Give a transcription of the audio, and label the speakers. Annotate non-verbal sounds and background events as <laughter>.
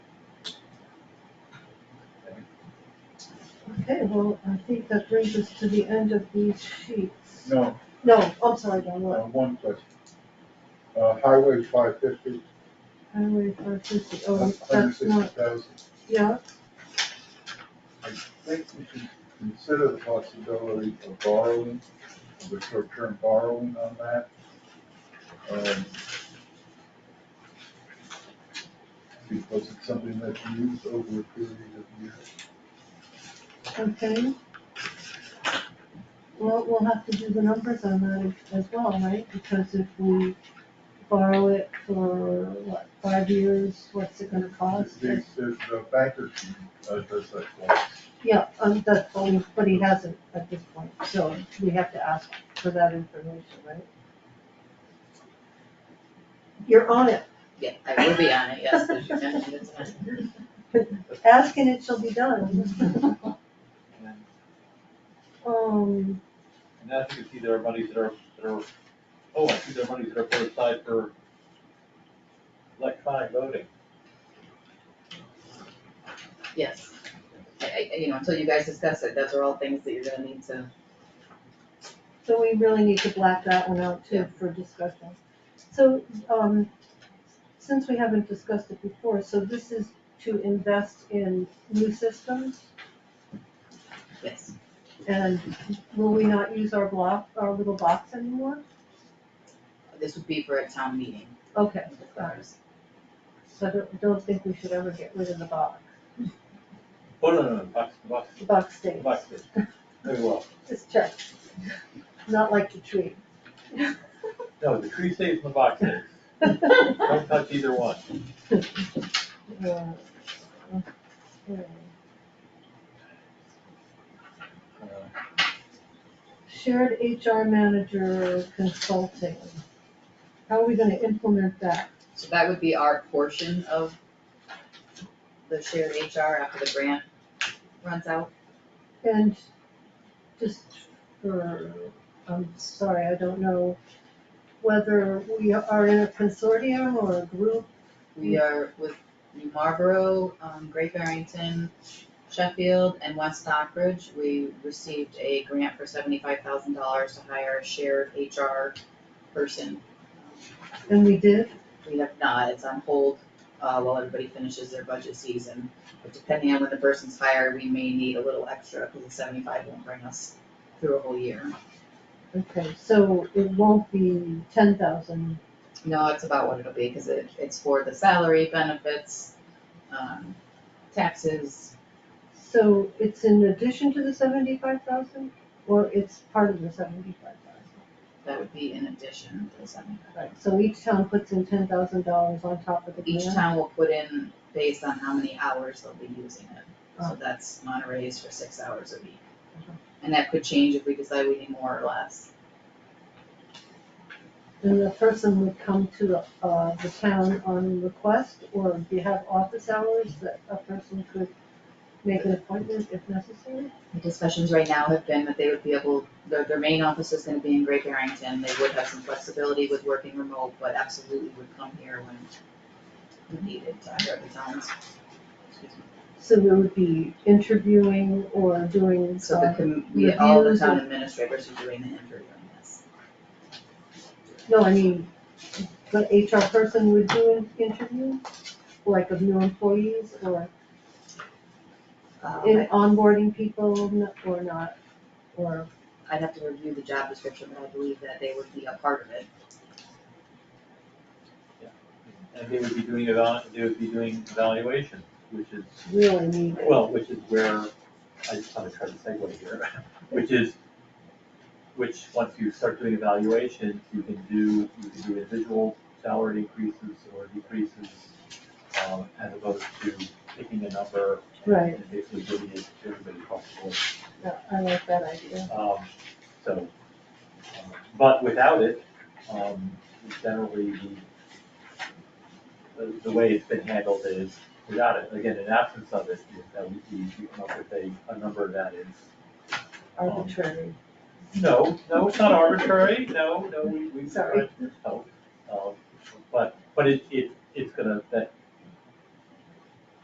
Speaker 1: Okay, well, I think that brings us to the end of these sheets.
Speaker 2: No,
Speaker 1: No, I'm sorry, Don,
Speaker 2: uh,
Speaker 1: what?
Speaker 2: one question. Uh, highway five fifty,
Speaker 1: Highway five fifty, oh,
Speaker 2: hundred
Speaker 1: that's
Speaker 2: sixty
Speaker 1: not,
Speaker 2: thousand.
Speaker 1: yeah,
Speaker 2: I think we should consider the possibility of borrowing, of a short-term borrowing on that. Um, Because it's something that's used over a period of years.
Speaker 1: okay. Well, we'll have to do the numbers on that as well, right? Because if we borrow it for, what, five years, what's it gonna cost?
Speaker 2: There's, there's the banker, uh, does that for us.
Speaker 1: Yeah, um, that's, what we- but he hasn't at this point, so we have to ask for that information, right? You're on it,
Speaker 3: Yeah, I will be on it, yes, as you mentioned, it's fine.
Speaker 1: ask and it shall be done. Um,
Speaker 4: And I think it's either monies that are, that are, oh, I see there are monies that are put aside for electronic voting.
Speaker 3: yes. I, I, you know, until you guys discuss it, those are all things that you're gonna need to,
Speaker 1: so we really need to black that one out too for discussion. So, um, since we haven't discussed it before, so this is to invest in new systems?
Speaker 3: yes.
Speaker 1: And will we not use our block, our little box anymore?
Speaker 3: This would be for a town meeting.
Speaker 1: Okay, so I don't, don't think we should ever get rid of the box,
Speaker 4: Oh, no, no, no, box, box,
Speaker 1: the box stays,
Speaker 4: box, it. very well.
Speaker 1: just check. <laughs> Not like the tree. <laughs>
Speaker 4: No, the tree stays in the box stays. Don't touch either one.
Speaker 1: Yeah. Okay.
Speaker 4: Uh,
Speaker 1: Shared HR manager consulting. How are we gonna implement that?
Speaker 3: So that would be our portion of the shared HR after the grant runs out.
Speaker 1: And just for, I'm sorry, I don't know whether we are in a consortium or a group.
Speaker 3: We are with New Marlboro, um, Great Barrington, Sheffield, and West Stockbridge. We received a grant for seventy-five thousand dollars to hire a shared HR person.
Speaker 1: And we did,
Speaker 3: We have not, it's on hold, uh, while everybody finishes their budget season. But depending on when the person's hired, we may need a little extra, because the seventy-five won't bring us through a whole year.
Speaker 1: okay, so it won't be ten thousand
Speaker 3: No, it's about what it'll be, because it, it's for the salary, benefits, um, taxes,
Speaker 1: So it's in addition to the seventy-five thousand, or it's part of the seventy-five thousand?
Speaker 3: that would be in addition to the seventy-five.
Speaker 1: Right, so each town puts in ten thousand dollars on top of the
Speaker 3: Each
Speaker 1: grant?
Speaker 3: town will put in based on how many hours they'll be using it. So that's Monterey's for six hours a week. And that could change if we decide we need more or less.
Speaker 1: And the person would come to, uh, the town on request, or do you have office hours that a person could make an appointment if necessary?
Speaker 3: The discussions right now have been that they would be able, their, their main office is gonna be in Great Barrington. They would have some flexibility with working remote, but absolutely would come here when when needed to either of the towns.
Speaker 1: So there would be interviewing or doing,
Speaker 3: So the,
Speaker 1: uh,
Speaker 3: com- we, all the
Speaker 1: reviews
Speaker 3: town
Speaker 1: and-
Speaker 3: administrators are doing the interviewing, yes.
Speaker 1: no, I mean, the HR person would do an interview, like of new employees, or
Speaker 3: Um,
Speaker 1: in onboarding people n- or not, or,
Speaker 3: I'd have to review the job description, but I believe that they would be a part of it.
Speaker 4: And they would be doing eva, they would be doing evaluation, which is
Speaker 1: really need it.
Speaker 4: Well, which is where, I just wanna try to segue here, <laughs> which is, which, once you start doing evaluations, you can do, you can do individual salary increases or decreases, um, as opposed to picking a number
Speaker 1: Right,
Speaker 4: and basically giving it to everybody across the board.
Speaker 1: yeah, I like that idea.
Speaker 4: Um, so, um, but without it, um, generally, the- the, the way it's been handled is, without it, again, in absence of it, is that we, we we come up with a, a number that is,
Speaker 3: Um,
Speaker 1: Arbitrary.
Speaker 4: no, no, it's not arbitrary, no, no, we, we.
Speaker 1: Sorry.
Speaker 4: No, um, but, but it, it, it's gonna, that,